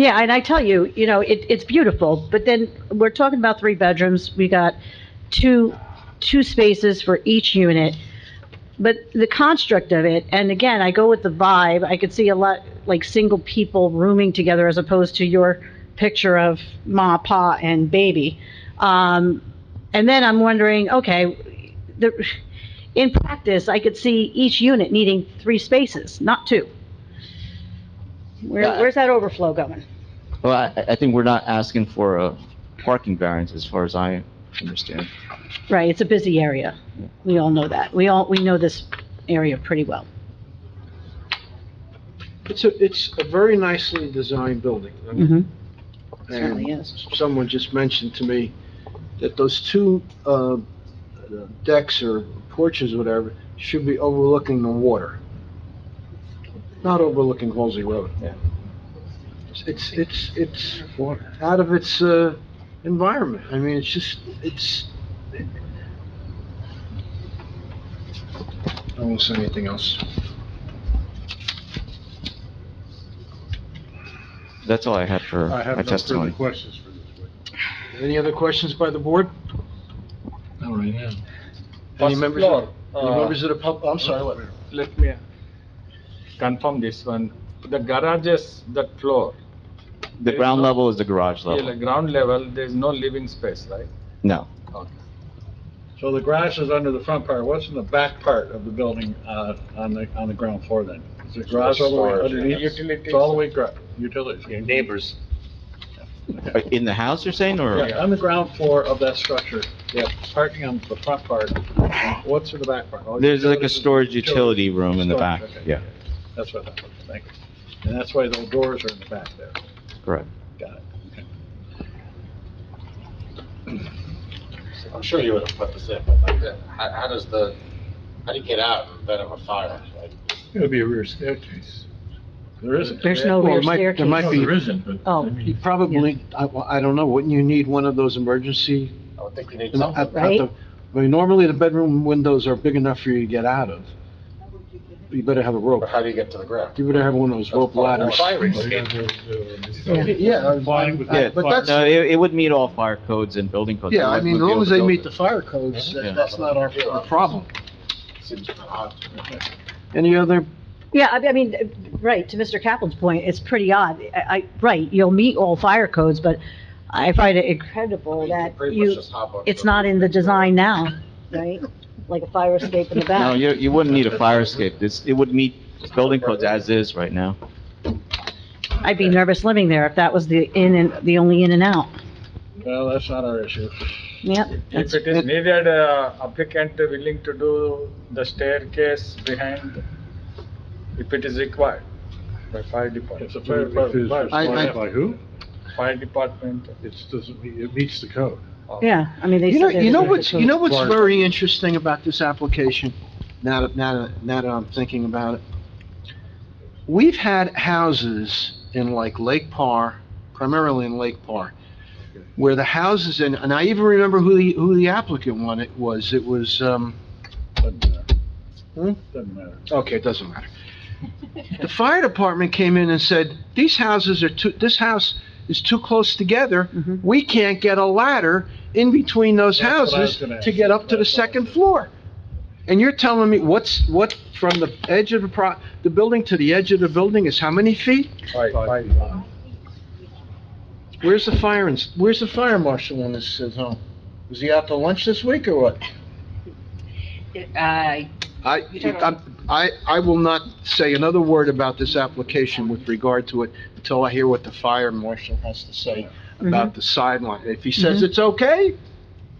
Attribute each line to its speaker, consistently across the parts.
Speaker 1: Yeah, and I tell you, you know, it, it's beautiful, but then we're talking about three bedrooms, we got two, two spaces for each unit. But the construct of it, and again, I go with the vibe, I could see a lot, like, single people rooming together as opposed to your picture of ma, pa, and baby. Um, and then I'm wondering, okay, the, in practice, I could see each unit needing three spaces, not two. Where,
Speaker 2: Yeah.
Speaker 1: where's that overflow going?
Speaker 2: Well, I, I think we're not asking for a parking variance as far as I understand.
Speaker 1: Right, it's a busy area. We all know that. We all, we know this area pretty well.
Speaker 3: It's a, it's a very nicely designed building. I mean,
Speaker 1: Mm-hmm.
Speaker 3: and
Speaker 1: Certainly is.
Speaker 3: Someone just mentioned to me that those two, uh, decks or porches, whatever, should be overlooking the water. Not overlooking Halsey Road.
Speaker 2: Yeah.
Speaker 3: It's, it's, it's out of its, uh, environment. I mean, it's just, it's. I won't say anything else.
Speaker 2: That's all I had for
Speaker 4: I
Speaker 2: my
Speaker 4: have no further
Speaker 2: testimony.
Speaker 4: questions for this witness.
Speaker 3: Any other questions by the board? All right. Any
Speaker 5: First
Speaker 3: members,
Speaker 5: floor,
Speaker 3: any
Speaker 5: uh,
Speaker 3: members of the pub, I'm sorry, what?
Speaker 5: Let me confirm this one. The garages, that floor,
Speaker 2: The ground level is the garage
Speaker 3: Oh.
Speaker 5: yeah, the
Speaker 2: level.
Speaker 5: ground level, there's no living space, right?
Speaker 2: No,
Speaker 5: Okay.
Speaker 4: So the grass is under the front part, what's in the back part of the building, uh, on the, on the ground floor then? Is it garage all the way
Speaker 5: Storage,
Speaker 4: underneath?
Speaker 5: yes. Utilities.
Speaker 4: It's all the way, gra- utilities?
Speaker 6: neighbors.
Speaker 2: Uh, in the house you're saying, or?
Speaker 4: Yeah, on the ground floor of that structure, yeah, parking on the front part, what's in the back part? Oh,
Speaker 2: There's like a
Speaker 4: utilities and
Speaker 2: storage utility
Speaker 4: utilities.
Speaker 2: room in the back,
Speaker 4: Storage, okay.
Speaker 2: yeah,
Speaker 4: That's what I thought, thank you. And that's why those doors are in the back there,
Speaker 2: correct.
Speaker 4: got it.
Speaker 7: I'm sure you would have put this in, but like, how, how does the, how do you get out in event of a fire? Like,
Speaker 4: It'll be a rear staircase. There isn't.
Speaker 1: There's no
Speaker 3: Well,
Speaker 1: rear
Speaker 3: it might- there
Speaker 1: staircase.
Speaker 3: might
Speaker 4: No,
Speaker 3: be-
Speaker 4: there isn't, but. I
Speaker 1: Oh,
Speaker 4: mean-
Speaker 3: You Probably, I, well, I don't know, wouldn't you need one of those emergency?
Speaker 7: I would think you need
Speaker 3: at-
Speaker 7: something.
Speaker 3: at the- I mean, normally the bedroom windows are big enough for you to get out of. You better have a rope.
Speaker 7: But how do you get to the ground?
Speaker 3: You better have one of those rope ladders.
Speaker 7: Fire
Speaker 4: Yeah,
Speaker 7: escape.
Speaker 4: there- there-
Speaker 3: Yeah, yeah,
Speaker 4: Complying with-
Speaker 3: Yeah, but that's-
Speaker 2: No, it, it would meet all fire codes and building codes.
Speaker 3: Yeah,
Speaker 2: It
Speaker 3: I
Speaker 2: would
Speaker 3: mean, as
Speaker 2: be
Speaker 3: long
Speaker 2: able
Speaker 3: as
Speaker 2: to
Speaker 3: they
Speaker 2: build
Speaker 3: meet
Speaker 2: it.
Speaker 3: the fire codes,
Speaker 2: Yeah.
Speaker 3: that- that's not our, our problem.
Speaker 7: Seems odd to me.
Speaker 3: Any other,
Speaker 1: Yeah, I I mean, uh, right, to Mr. Kaplan's point, it's pretty odd. I, I- right, you'll meet all fire codes, but I find it incredible
Speaker 7: You
Speaker 1: that
Speaker 7: can pretty much
Speaker 1: you,
Speaker 7: just hop on
Speaker 1: it's
Speaker 7: the-
Speaker 1: not in the design now, right? Like a fire escape in the
Speaker 2: No,
Speaker 1: back.
Speaker 2: you, you wouldn't need a fire escape, this, it would meet building codes as is right now.
Speaker 1: I'd be nervous living there if that was the in and, the only in and out.
Speaker 4: Well, that's not our issue.
Speaker 1: Yep.
Speaker 5: If it is needed, uh, applicant willing to do the staircase behind, if it is required by fire
Speaker 4: It's
Speaker 5: department.
Speaker 4: a fire department.
Speaker 3: I- I-
Speaker 4: By who?
Speaker 5: Fire department,
Speaker 4: It's, doesn't, meet- it meets the code.
Speaker 1: Yeah, I mean, they.
Speaker 3: you know,
Speaker 1: said they
Speaker 3: you know
Speaker 1: didn't
Speaker 3: what's, you know what's
Speaker 4: Fire-
Speaker 3: very interesting about this application? Now that, now that, now that I'm thinking about it. We've had houses in like Lake Parr, primarily in Lake Parr, where the houses, and, and I even remember who the, who the applicant one it was. It was, um,
Speaker 4: Doesn't
Speaker 3: Hmm?
Speaker 5: uh,
Speaker 4: matter. Doesn't matter.
Speaker 3: Okay, it doesn't matter. The fire department came in and said, these houses are too, this house is too close together.
Speaker 1: Mhm.
Speaker 3: We can't get a ladder in between those
Speaker 4: Mm-hmm. That's what I was
Speaker 3: houses
Speaker 4: gonna
Speaker 3: to
Speaker 4: ask.
Speaker 3: get up to the
Speaker 4: That's what I was
Speaker 3: second
Speaker 4: gonna-
Speaker 3: floor. And you're telling me what's, what, from the edge of the pro, the building to the edge of the building is how many feet?
Speaker 5: fire, fire.
Speaker 3: Where's the fire, ins- where's the fire marshal on this, at home? Was he out to lunch this week or what?
Speaker 8: I
Speaker 3: I, I'm- I, I will not say another word about this application with regard to it until I hear what the fire marshal has to say about the sideline. If he says it's okay,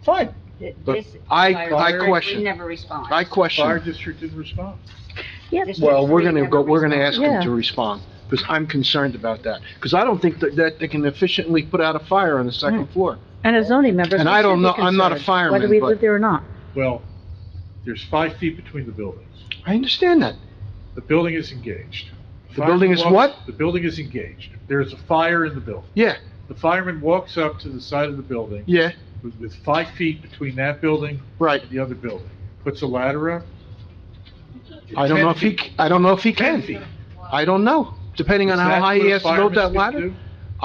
Speaker 3: fine. But
Speaker 8: This
Speaker 3: I,
Speaker 8: fire
Speaker 3: I
Speaker 8: director
Speaker 3: question,
Speaker 8: never responds.
Speaker 3: I
Speaker 4: Fire
Speaker 3: question.
Speaker 4: district didn't respond.
Speaker 1: Yeah.
Speaker 8: This
Speaker 3: Well, we're
Speaker 8: director
Speaker 3: gonna go,
Speaker 8: never
Speaker 3: we're gonna
Speaker 8: responds.
Speaker 3: ask him
Speaker 1: Yeah.
Speaker 3: to respond, because I'm concerned about that. Because I don't think that, that they can efficiently put out a fire on the second floor.
Speaker 1: And as zoning members,
Speaker 3: And
Speaker 1: we
Speaker 3: I
Speaker 1: should
Speaker 3: don't
Speaker 1: be
Speaker 3: know- I'm not a
Speaker 1: concerned,
Speaker 3: fireman,
Speaker 1: Whether we
Speaker 3: but-
Speaker 1: live there or not.
Speaker 4: Well, there's five feet between the buildings.
Speaker 3: I understand that.
Speaker 4: The building is engaged.
Speaker 3: The building is
Speaker 4: Fireman walks-
Speaker 3: what?
Speaker 4: The building is engaged. There is a fire in the building.
Speaker 3: Yeah,
Speaker 4: The fireman walks up to the side of the building
Speaker 3: yeah,
Speaker 4: with, with five feet between that building
Speaker 3: right.
Speaker 4: and the other building. Puts a ladder up.
Speaker 3: I don't know if he, I don't know if he
Speaker 4: Ten
Speaker 3: can.
Speaker 4: feet.
Speaker 3: I don't know, depending on
Speaker 4: Is
Speaker 3: how
Speaker 4: that
Speaker 3: high
Speaker 4: what
Speaker 3: he
Speaker 4: a
Speaker 3: has to build
Speaker 4: fireman's
Speaker 3: that
Speaker 4: gonna
Speaker 3: ladder.
Speaker 4: do?